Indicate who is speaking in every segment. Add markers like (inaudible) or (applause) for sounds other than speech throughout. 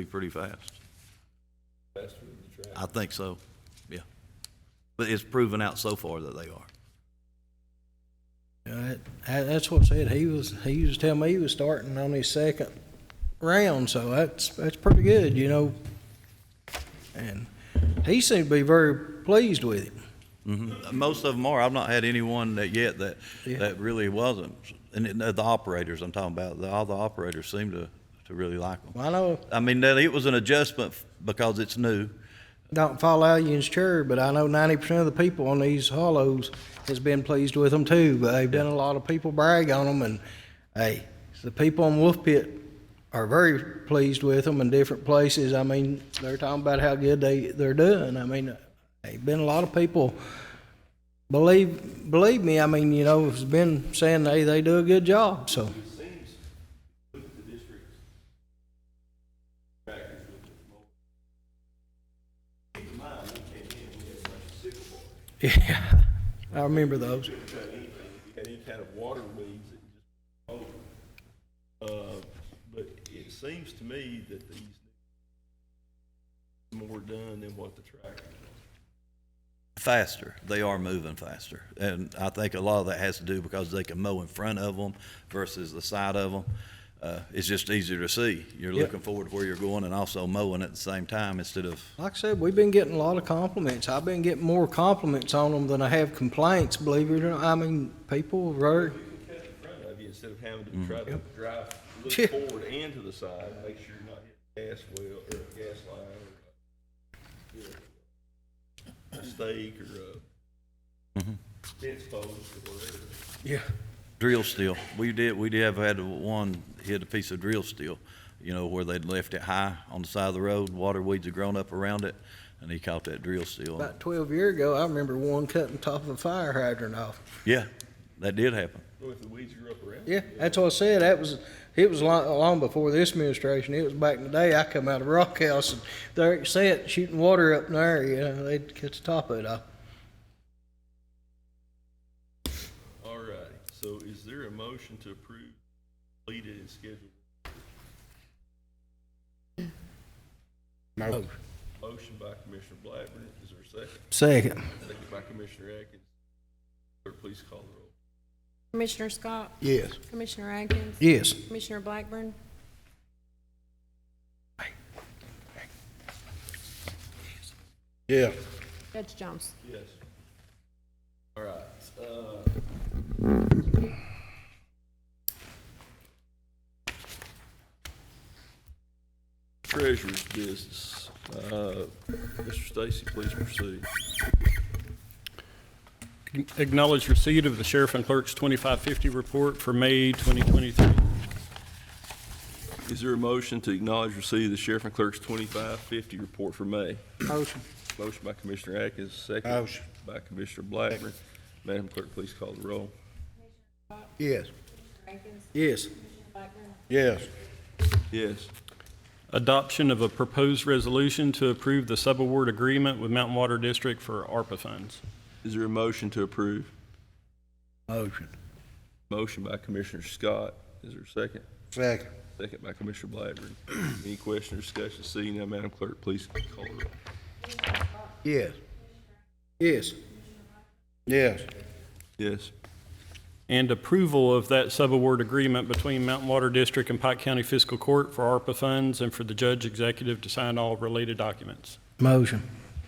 Speaker 1: be pretty fast. Faster than the track? I think so, yeah. But it's proven out so far that they are.
Speaker 2: Yeah, that- That's what I said, he was, he used to tell me he was starting on his second round, so that's, that's pretty good, you know? And he seemed to be very pleased with it.
Speaker 1: Mhm. Most of them are. I've not had anyone that yet that,
Speaker 2: Yeah.
Speaker 1: that really wasn't. And it- the operators I'm talking about, the- all the operators seem to, to really like them.
Speaker 2: Well, I know
Speaker 1: I mean, that- it was an adjustment f- because it's new.
Speaker 2: don't fall out you sure, but I know ninety percent of the people on these hollows has been pleased with them too, but they've done a lot of people brag on them, and, hey, the people in Wolf Pit are very pleased with them in different places, I mean, they're talking about how good they, they're doing, I mean, they've been a lot of people, believe, believe me, I mean, you know, has been saying, hey, they do a good job, so. Yeah, I remember those.
Speaker 3: had any kind of water leads, it just, oh. Uh, but it seems to me that these need more done than what the tractor does.
Speaker 1: faster. They are moving faster. And I think a lot of that has to do because they can mow in front of them versus the side of them. Uh, it's just easier to see. You're
Speaker 2: Yeah.
Speaker 1: looking forward to where you're going and also mowing at the same time instead of,
Speaker 2: Like I said, we've been getting a lot of compliments. I've been getting more compliments on them than I have complaints, believe it or not. I mean, people are,
Speaker 3: You can cut in front of you instead of having to try to drive,
Speaker 2: Yeah.
Speaker 3: look forward and to the side, make sure you're not hitting gas well, or a gas line, or a stake, or a fence post, or whatever.
Speaker 2: yeah.
Speaker 1: drill steel. We did, we did have had one hit a piece of drill steel, you know, where they'd left it high on the side of the road. Water weeds had grown up around it and he caught that drill steel.
Speaker 2: About twelve year ago, I remember one cutting top of a fire hydrant off.
Speaker 1: Yeah, that did happen.
Speaker 3: Or if the weeds grew up around.
Speaker 2: Yeah, that's what I said. That was, it was long, long before this administration. It was back in the day. I come out of Rock House and there it sat shooting water up in there, you know, they'd cut the top of it off.
Speaker 3: All right, so is there a motion to approve completed and scheduled?
Speaker 2: No.
Speaker 3: Motion by Commissioner Blackburn, is there a second?
Speaker 2: Second.
Speaker 3: Second by Commissioner Atkins. Clerk, please call the roll.
Speaker 4: Commissioner Scott,
Speaker 2: Yes.
Speaker 4: Commissioner Atkins,
Speaker 2: Yes.
Speaker 4: Commissioner Blackburn,
Speaker 2: Yeah.
Speaker 4: Judge Jones.
Speaker 3: Yes. All right, uh. Treasurer's business, uh, Mr. Stacy, please proceed.
Speaker 5: Acknowledge receipt of the sheriff and clerk's 2550 report for May 2023.
Speaker 3: Is there a motion to acknowledge receipt of the sheriff and clerk's twenty-five fifty report for May?
Speaker 2: Motion.
Speaker 3: Motion by Commissioner Atkins, second.
Speaker 2: Motion.
Speaker 3: By Commissioner Blackburn. Madam Clerk, please call the roll.
Speaker 2: Yes.
Speaker 4: Atkins,
Speaker 2: Yes.
Speaker 4: Blackburn,
Speaker 2: Yes.
Speaker 3: Yes.
Speaker 5: Adoption of a proposed resolution to approve the subaward agreement with Mountain Water District for ARPA funds.
Speaker 3: Is there a motion to approve?
Speaker 2: Motion.
Speaker 3: Motion by Commissioner Scott. Is there a second?
Speaker 2: Second.
Speaker 3: Second by Commissioner (clears throat) Blackburn. Any question or discussion? Seeing none, Madam Clerk, please call the roll.
Speaker 2: Yes. Yes. Yes.
Speaker 3: Yes.
Speaker 5: And approval of that subaward agreement between Mountain Water District and Pike County Fiscal Court for ARPA funds and for the judge executive to sign all related documents.
Speaker 2: Motion.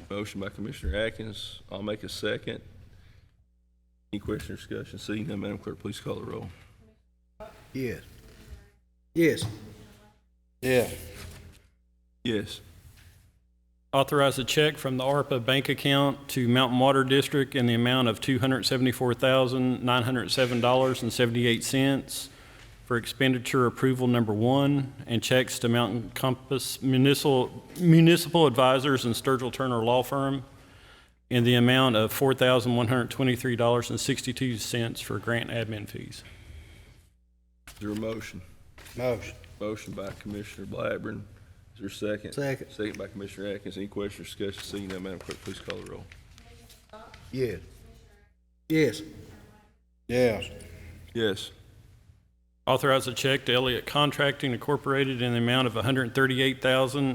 Speaker 3: Motion by Commissioner Atkins. I'll make a second. Any question or discussion? Seeing none, Madam Clerk, please call the roll.
Speaker 2: Yes. Yes. Yeah.
Speaker 3: Yes.
Speaker 5: Authorize a check from the ARPA bank account to Mountain Water District in the amount of $274,907.78 for expenditure approval number one, and checks to Mountain Compass Municipal Municipal Advisors and Sturgill Turner Law Firm in the amount of $4,123.62 for grant admin fees.
Speaker 3: Is there a motion?
Speaker 2: Motion.
Speaker 3: Motion by Commissioner Blackburn. Is there a second?
Speaker 2: Second.
Speaker 3: Second by Commissioner Atkins. Any question or discussion? Seeing none, Madam Clerk, please call the roll.
Speaker 2: Yes. Yes. Yes.
Speaker 3: Yes.
Speaker 5: Authorize a check to Elliott Contracting Incorporated in the amount of 138000